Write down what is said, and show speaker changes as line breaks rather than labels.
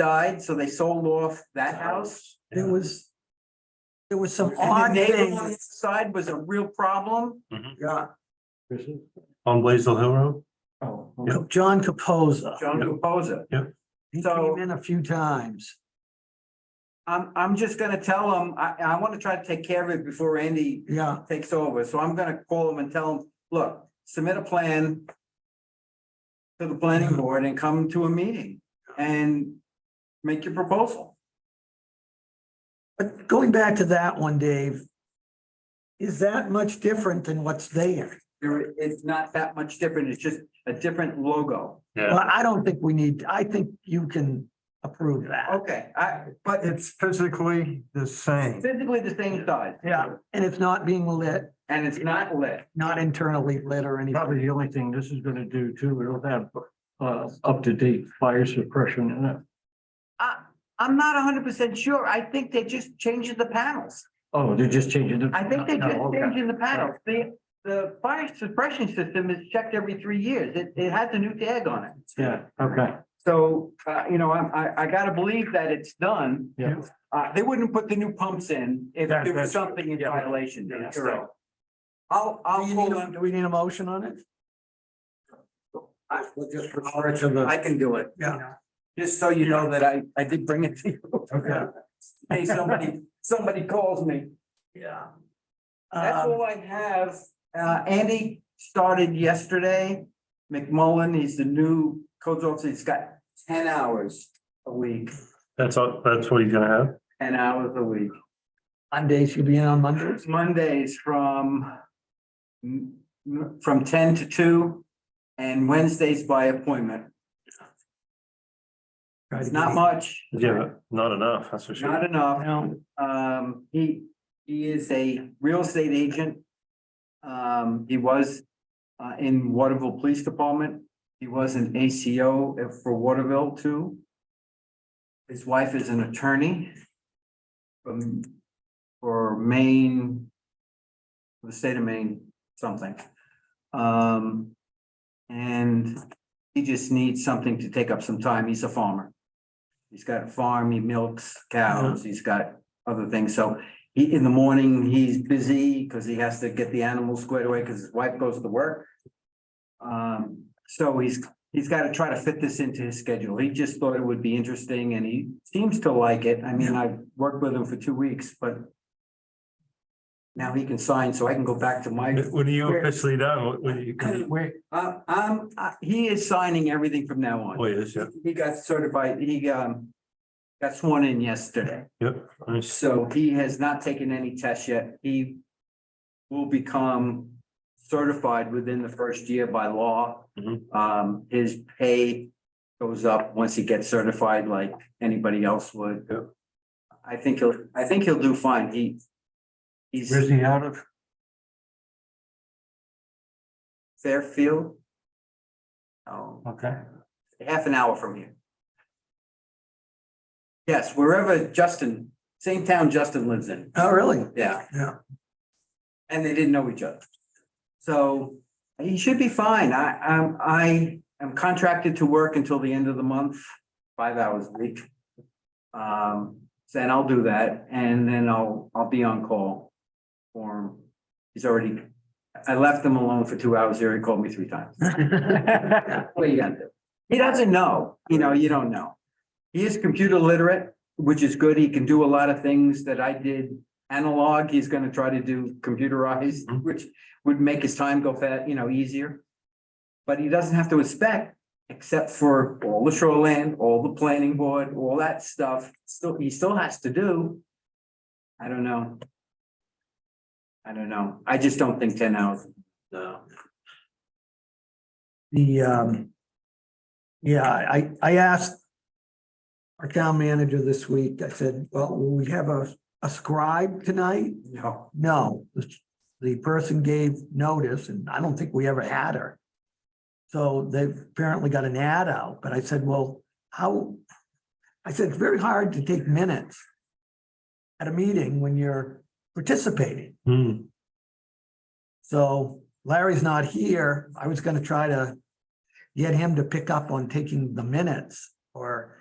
died, so they sold off that house.
There was, there was some
And the
odd
neighbor on the
things.
side was a real problem.
Yeah,
On Blaisdell Hill Road?
Oh.
John Capoza.
John Reposa.
He
So-
came in a few times.
I'm, I'm just gonna tell him, I, I wanna try to take care of it before Andy
Yeah,
takes over, so I'm gonna call him and tell him, look, submit a plan to the planning board and come to a meeting and make your proposal.
but going back to that one, Dave. Is that much different than what's there?
There- it's not that much different, it's just a different logo.
Well, I don't think we need, I think you can approve that.
Okay, I, but it's
It's physically the same.
physically the same size.
Yeah. And it's not being lit,
And it's not lit.
not internally lit or
Probably
anything.
the only thing this is gonna do too, it'll have uh up to date fire suppression in it.
I, I'm not hundred percent sure. I think they're just changing the panels.
Oh, they're just changing the.
I think they're just
Oh, okay.
changing the panels. The, the fire suppression system is checked every three years. It, it has a new tag on it.
Yeah, okay,
So, uh, you know, I'm- I, I gotta believe that it's done.
yeah.
Uh, they wouldn't put the new pumps in if
That-
there was
that's-
something in
yeah.
violation.
Yeah, that's
Correct.
right.
I'll,
Do
I'll
you
call
need a-
them.
do we need a motion on it?
Just refer to the.
I can do it. you
Yeah.
know, Just so you know that I, I did bring it to you.
Okay.
Hey, somebody, somebody calls me.
Yeah. Um,
That's all I have. Um, Uh, Andy started yesterday. McMullen, he's the new codes officer. He's got ten hours a week,
That's all, that's what he's gonna have?
ten hours a week.
Mondays, you'll be in on Mondays?
Mondays from m- m- from ten to two and Wednesdays by appointment. It's not much,
Yeah, but not enough, that's for
not
sure.
enough.
No.
Um, he, he is a real estate agent. Um, he was, uh, in Waterville Police Department. He was an ACO for Waterville too. His wife is an attorney from, for Maine, the state of Maine, something. Um, and he just needs something to take up some time. He's a farmer. He's got a farm, he milks cows, he's got other things. So he, in the morning, he's busy because he has to get the animals squared away because his wife goes to work. Um, so he's, he's got to try to fit this into his schedule. He just thought it would be interesting and he seems to like it. I mean, I worked with him for two weeks, but now he can sign, so I can go back to my,
When are you officially done? What- When you,
Wait,
uh, um, uh, he is signing everything from now on.
oh, yes, yeah,
He got certified, he, um, got sworn in yesterday.
yep. Nice.
So he has not taken any tests yet. He will become certified within the first year by law.
Mhm.
Um, his pay goes up once he gets certified like anybody else would.
Yep.
I think he'll, I think he'll do fine. He, he's
where's he out of?
Fairfield. Oh,
Okay.
half an hour from here. Yes, wherever Justin, same town Justin lives in.
Oh, really?
Yeah.
Yeah.
And they didn't know each other. So he should be fine. I, I'm, I am contracted to work until the end of the month, five hours a week. Um, then I'll do that and then I'll, I'll be on call for him. He's already, I left him alone for two hours here. He called me three times. What are you gonna do? He doesn't know, you know, you don't know. He is computer literate, which is good. He can do a lot of things that I did analog, he's gonna try to do computerized,
Mhm.
which would make his time go fast, you know, easier. But he doesn't have to inspect, except for all the shoreland, all the planning board, all that stuff, still, he still has to do. I don't know. I don't know, I just don't think ten hours. No.
The, um, yeah, I, I asked our town manager this week, I said, well, will we have a, a scribe tonight?
No,
No, the, the person gave notice and I don't think we ever had her. So they've apparently got an ad out, but I said, well, how? I said, it's very hard to take minutes at a meeting when you're participating.
Hmm,
So Larry's not here. I was gonna try to get him to pick up on taking the minutes or